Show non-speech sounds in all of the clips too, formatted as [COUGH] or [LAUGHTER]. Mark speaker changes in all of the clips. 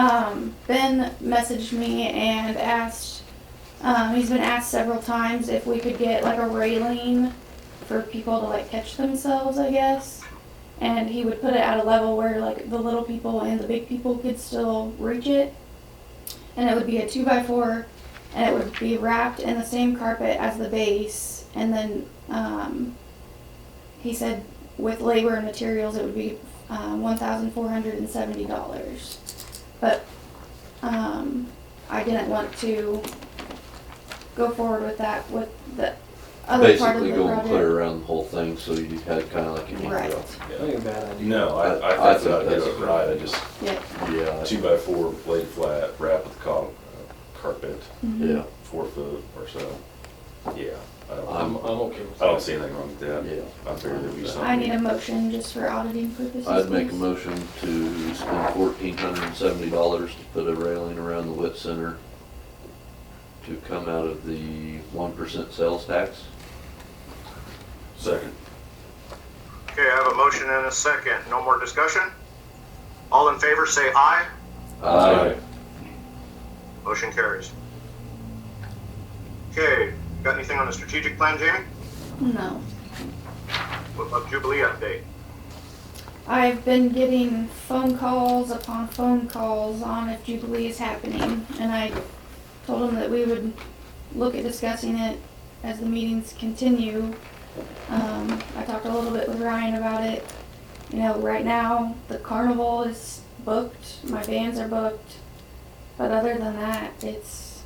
Speaker 1: Um, Ben messaged me and asked, um, he's been asked several times if we could get like a railing for people to like catch themselves, I guess. And he would put it at a level where like the little people and the big people could still reach it. And it would be a two by four and it would be wrapped in the same carpet as the base. And then um, he said with labor and materials it would be uh, $1,470. But um, I didn't want to go forward with that with the other part of
Speaker 2: Basically
Speaker 1: the
Speaker 2: go and
Speaker 1: project.
Speaker 2: clear around the whole thing, so you had kind of like an
Speaker 1: Right.
Speaker 2: handrail.
Speaker 3: Ain't a bad idea.
Speaker 4: No,
Speaker 2: I-
Speaker 4: I, I
Speaker 2: I
Speaker 4: think that
Speaker 2: think
Speaker 4: I did
Speaker 2: that's-
Speaker 4: it right, I just,
Speaker 1: Yeah.
Speaker 2: Yeah,
Speaker 4: two by four, laid flat, wrap with con, uh, carpet,
Speaker 1: Mhm.
Speaker 2: yeah,
Speaker 4: four foot or so. Yeah, I don't,
Speaker 2: I'm-
Speaker 4: I'm-
Speaker 3: I'm okay with
Speaker 4: I don't
Speaker 5: Oh.
Speaker 3: that.
Speaker 4: see anything wrong with that.
Speaker 2: yeah.
Speaker 4: I figured there'd be
Speaker 1: I need a
Speaker 4: something.
Speaker 1: motion just for auditing purposes.
Speaker 2: I'd make a
Speaker 1: please.
Speaker 2: motion to spend fourteen hundred and seventy dollars to put a railing around the wit center to come out of the one percent sales tax.
Speaker 4: Second.
Speaker 5: Okay, I have a motion and a second. No more discussion? All in favor, say aye.
Speaker 2: Aye.
Speaker 5: Motion carries. Okay, got anything on the strategic plan, Jamie?
Speaker 1: No.
Speaker 5: What about Jubilee update?
Speaker 1: I've been getting phone calls upon phone calls on if Jubilee is happening, and I told them that we would look at discussing it as the meetings continue. Um, I talked a little bit with Ryan about it. You know, right now, the carnival is booked, my bands are booked, but other than that, it's,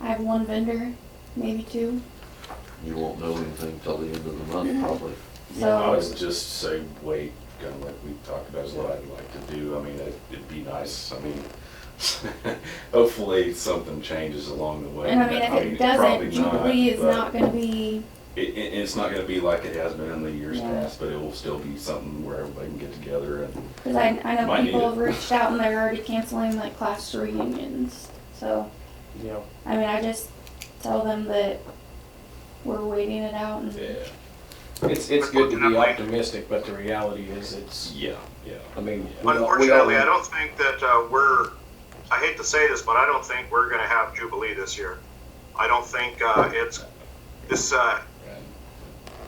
Speaker 1: I have one vendor, maybe two,
Speaker 2: You won't know anything till the end of the month,
Speaker 1: Mm-hmm.
Speaker 2: probably.
Speaker 4: I
Speaker 1: so,
Speaker 4: would just say wait, kind of like we talked about, is what I'd like to do. I mean, it- it'd be nice, I mean, [LAUGHS] hopefully something changes along the way.
Speaker 1: and I mean, if it doesn't,
Speaker 4: probably
Speaker 1: Jubilee is
Speaker 4: but-
Speaker 1: not gonna be
Speaker 4: It, it, it's not gonna be like it has been in the years
Speaker 1: Yeah.
Speaker 4: past, but it will still be something where everybody can get together and,
Speaker 1: Because I, I know
Speaker 4: Might need
Speaker 1: people
Speaker 4: it.
Speaker 1: have reached out and they're already canceling like class reunions. So,
Speaker 3: Yeah.
Speaker 1: I mean, I just tell them that we're waiting it out and
Speaker 4: yeah,
Speaker 3: It's, it's good to be optimistic, but the reality is it's,
Speaker 4: yeah, yeah.
Speaker 3: I mean. we all- we all-
Speaker 5: Unfortunately, I don't think that uh, we're, I hate to say this, but I don't think we're gonna have Jubilee this year. I don't think uh, it's, this uh,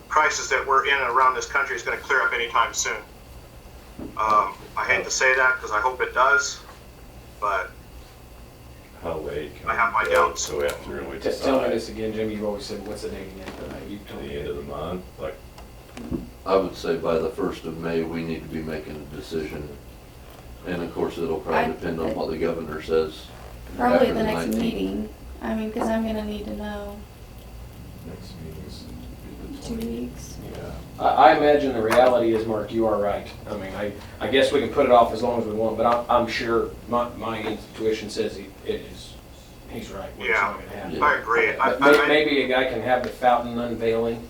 Speaker 5: crisis that we're in and around this country is gonna clear up anytime soon. Um, I hate to say that, because I hope it does, but
Speaker 4: How late?
Speaker 5: I have my doubts.
Speaker 4: So we have to really
Speaker 3: Just tell me
Speaker 4: decide
Speaker 3: this again, Jimmy, you always said, what's the date again? Uh, You
Speaker 4: at
Speaker 3: told
Speaker 4: the end of the
Speaker 3: me.
Speaker 4: month, like,
Speaker 2: I would say by the first of May, we need to be making a decision. And of course, it'll
Speaker 1: I-
Speaker 2: probably depend on what the governor says.
Speaker 1: probably
Speaker 2: after
Speaker 1: the next
Speaker 2: 19th.
Speaker 1: meeting. I mean, because I'm going to need to know
Speaker 4: next meeting's
Speaker 1: two weeks.
Speaker 3: Yeah. I, I imagine the reality is, Mark, you are right. I mean, I, I guess we can put it off as long as we want, but I'm, I'm sure my, my intuition says he, it is, he's right. It's
Speaker 5: Yeah.
Speaker 3: not gonna happen.
Speaker 5: I agree. I,
Speaker 3: But
Speaker 5: I, I-
Speaker 3: may- Maybe a guy can have the fountain unveiling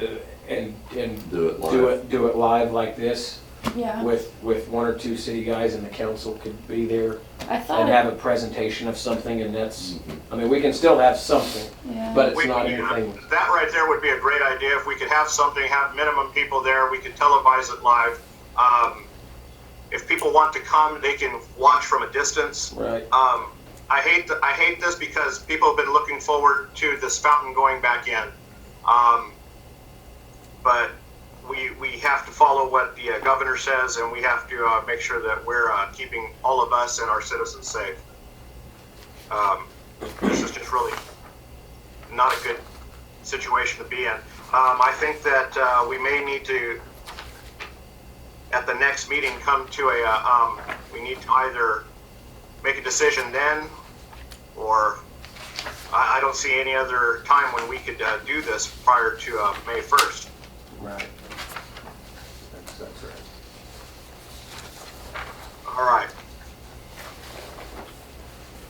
Speaker 3: uh, and, and
Speaker 2: Do it live.
Speaker 3: do it, do it live like this
Speaker 1: Yeah.
Speaker 3: with, with one or two city guys and the council could be there
Speaker 1: I
Speaker 3: and
Speaker 1: thought,
Speaker 3: have
Speaker 1: it-
Speaker 3: a presentation of something and that's, I mean, we can still have something,
Speaker 1: yeah.
Speaker 3: but it's
Speaker 5: We-
Speaker 3: not
Speaker 5: yeah,
Speaker 3: anything.
Speaker 5: That right there would be a great idea. If we could have something, have minimum people there, we could televise it live. Um, if people want to come, they can watch from a distance.
Speaker 3: Right.
Speaker 5: Um, I hate th- I hate this because people have been looking forward to this fountain going back in. Um, but we, we have to follow what the uh, governor says, and we have to uh, make sure that we're uh, keeping all of us and our citizens safe. Um, this is just really not a good situation to be in. Um, I think that uh, we may need to, at the next meeting, come to a, uh, um, we need to either make a decision then, or I, I don't see any other time when we could uh, do this prior to uh, May 1st.
Speaker 3: Right. That's, that's right.
Speaker 5: All right.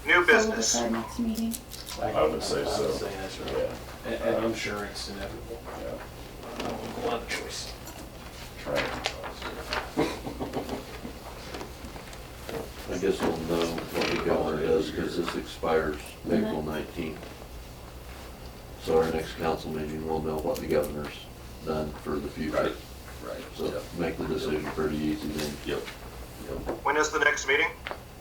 Speaker 5: New
Speaker 1: So um, we'll
Speaker 5: business.
Speaker 1: decide next meeting.
Speaker 4: I would say
Speaker 3: I would
Speaker 4: so.
Speaker 3: say that's
Speaker 4: Yeah.
Speaker 3: right. And, and I'm sure it's inevitable. I don't have a choice.
Speaker 4: Try it.
Speaker 2: I guess we'll know what the governor does, because this expires April nineteenth. So our next council meeting, we'll know what the governor's done for the future.
Speaker 4: Right, right,
Speaker 2: So make the decision pretty easy then.
Speaker 4: yep, yep.
Speaker 5: When is the next meeting?